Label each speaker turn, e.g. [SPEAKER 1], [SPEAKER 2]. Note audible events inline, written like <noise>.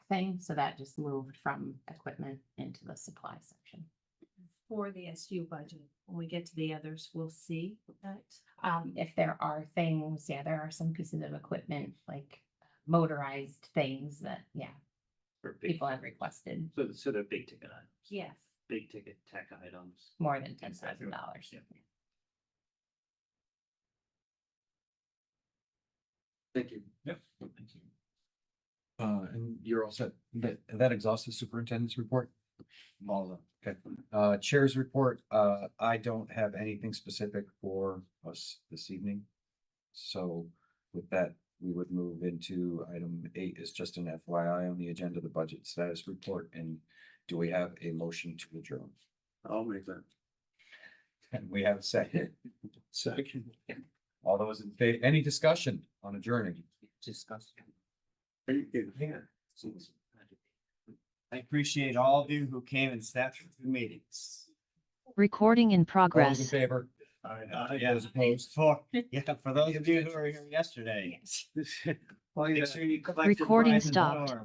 [SPEAKER 1] thing, so that just moved from equipment into the supply section.
[SPEAKER 2] for the SU budget. When we get to the others, we'll see that.
[SPEAKER 1] Um, if there are things, yeah, there are some pieces of equipment, like motorized things that, yeah,
[SPEAKER 3] for big,
[SPEAKER 1] people have requested
[SPEAKER 3] so, so they're big ticket items.
[SPEAKER 2] Yes.
[SPEAKER 3] Big ticket tech items.
[SPEAKER 1] more than ten thousand dollars.
[SPEAKER 3] Yeah. Thank you.
[SPEAKER 4] Yep. Thank you. Uh, and you're all set. That, that exhausts the superintendent's report? All of them. Okay. Uh, chair's report, uh, I don't have anything specific for us this evening. So with that, we would move into item eight is just an FYI on the agenda, the budget status report. And do we have a motion to adjourn?
[SPEAKER 3] I'll make that.
[SPEAKER 4] And we have a second.
[SPEAKER 3] Second.
[SPEAKER 4] All those in favor, any discussion on adjourning?
[SPEAKER 3] Discuss. Yeah.
[SPEAKER 5] I appreciate all of you who came and sat through the meetings.
[SPEAKER 6] Recording
[SPEAKER 4] All
[SPEAKER 6] in
[SPEAKER 4] those in
[SPEAKER 6] progress.
[SPEAKER 4] favor?
[SPEAKER 5] Uh,
[SPEAKER 4] Yeah,
[SPEAKER 5] yeah,
[SPEAKER 4] as opposed.
[SPEAKER 5] for, yeah,
[SPEAKER 4] <laughs>
[SPEAKER 5] for those of you who were here yesterday. Make sure you collect your
[SPEAKER 6] Recording
[SPEAKER 5] prize and
[SPEAKER 6] stopped.
[SPEAKER 5] door.